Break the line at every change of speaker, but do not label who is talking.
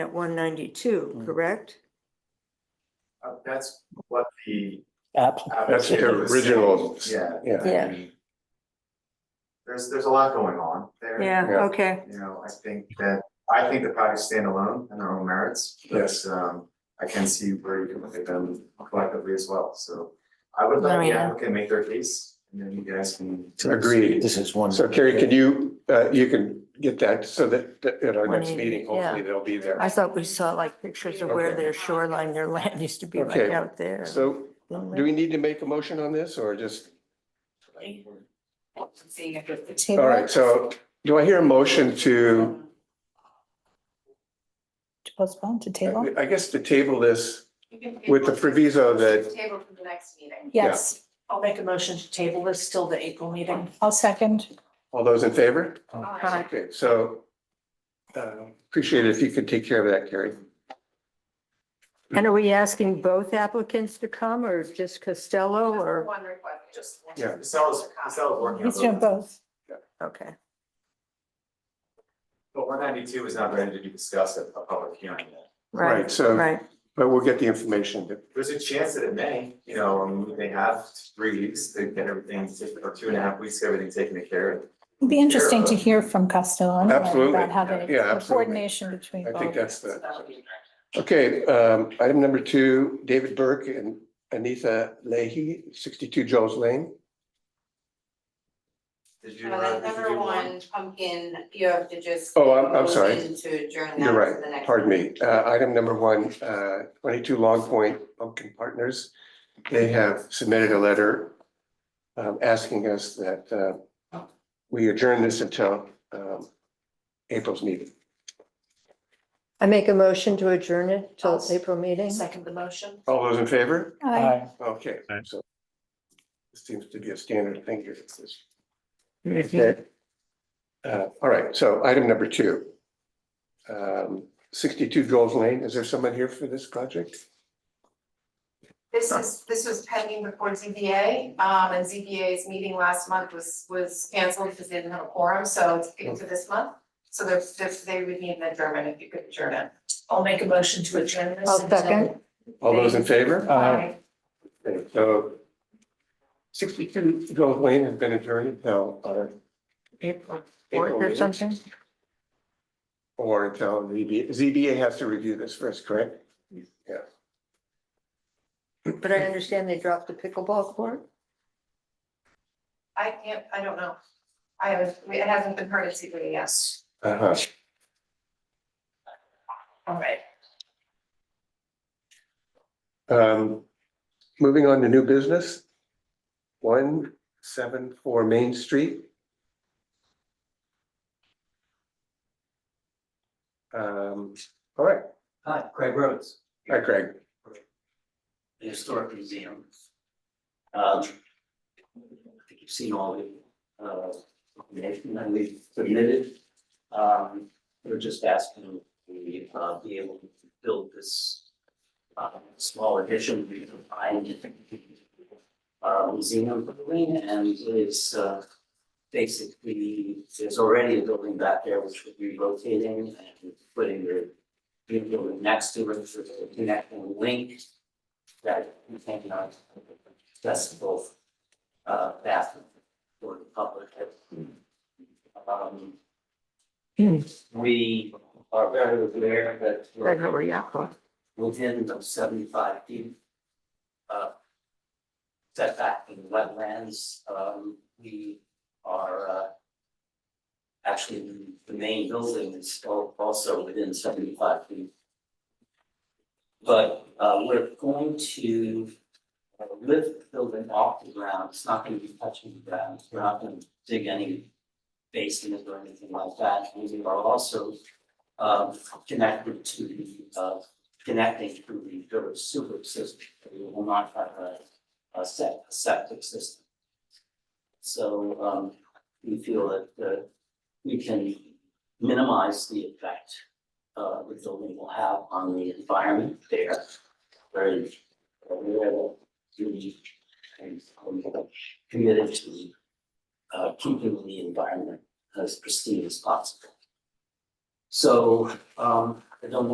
at one ninety-two,
Mm.
correct?
Uh, That's what the.
app.
That's the
application was saying.
original.
Yeah,
Yeah,
Yeah,
there's, there's a lot going on there.
yeah,
Yeah.
okay,
You know, I think that, I think the projects stand alone in their own merits, but
Yes.
um, I can see where you can look at them collectively as well, so. I would let the
Marina.
applicant make their case, and then you guys can.
agreed.
This is one.
So Carrie, could you, uh, you can get that so that that at our next
When-
meeting, hopefully they'll be there.
I thought we saw like pictures of where
Okay.
their shoreline, their land used to be right
Okay.
out there.
So do we need to make a motion on this or just? All right, so do I hear a motion to,
To postpone, to table?
I guess to table this with the proviso that,
Table for the next meeting.
Yes,
I'll make a motion to table this till the April meeting.
I'll second.
all those in favor?
Aye.
Okay, so uh, appreciate it if you could take care of that, Carrie.
And are we asking both applicants to come or just Costello
Just the
or,
one request, just. one.
Yeah.
Casella's, Casella's working on
He's doing
those,
both.
okay,
but one ninety-two is not ready to be discussed at a public hearing yet.
right,
So,
right.
but we'll get the information. that-
There's a chance that it may, you know, I mean, they have three weeks to get everything, or two and a half weeks, to get everything taken care of.
It'd be interesting to hear from Costello. anyway
Absolutely.
About how they,
Yeah,
the
absolutely.
coordination between
I
both.
think that's the.
That'll be-
Okay, um, item number two, David Burke and Anita Leahy, sixty-two Jones Lane.
Did you? uh,
Uh,
did you
number
do
one, pumpkin, you have to just.
Oh, I'm- I'm sorry.
motion To adjourn that
You're
to the
right,
next.
pardon me. Uh, item number one, uh, twenty-two Long Point Pumpkin Partners. They have submitted a letter um, asking us that, uh, we adjourn this until, um, April's meeting.
I make a motion to adjourn it till
I'll-
April meeting.
Second the motion.
All those in favor?
Aye.
Okay, so this seems to be a standard thing here. It's this-
Mhm.
Okay. Uh, all right, so item number two. Um, sixty-two Gold Lane, is there someone here for this project?
This is, this was pending before ZBA, um, and ZBA's meeting last month was, was canceled because they didn't have a quorum, so it's kicked to this month. So they're, they're- they would need an adjournment if you could adjourn it.
I'll make a motion to adjourn this.
I'll
until-
second.
All those in favor?
Aye.
Aye.
Okay, So sixty-two Gold Lane has been adjourned until our
April
April
fourth or
meeting,
something?
Or until ZBA, ZBA has to review this first, correct?
But I understand they dropped the pickleball court?
I can't, I don't know. I haven't, it hasn't been heard at ZBA yet.
Uh-huh.
All right.
Um, moving on to new business. One seven four Main Street. Um, all right,
Hi, Craig Rhodes,
hi Craig.
the Historic Museum. Um, I think you've seen all the, uh, information that we've submitted. Um, we're just asking we, uh, be able to build this, uh, small addition we can find. Uh, museum building and it's, uh, basically, there's already a building back there which we're relocating and putting the new building next to it for the connecting link that we think not accessible uh bathroom for the public. Um. We are very aware that
Right
we're
over Yakko.
within the seventy-five feet uh setback in wetlands, um, we are uh actually, the main building is al- also within seventy-five feet. But uh we're going to uh, lift the building off the ground, it's not gonna be touching the ground, we're not gonna dig any basement or anything like that, and we are also um connected to the uh connecting to the village sewer system, we will not have a a set, a septic system. So um we feel that uh we can minimize the effect uh the building will have on the environment there. Very aware that we and um, committed to uh keeping the environment as pristine as possible. So um I don't know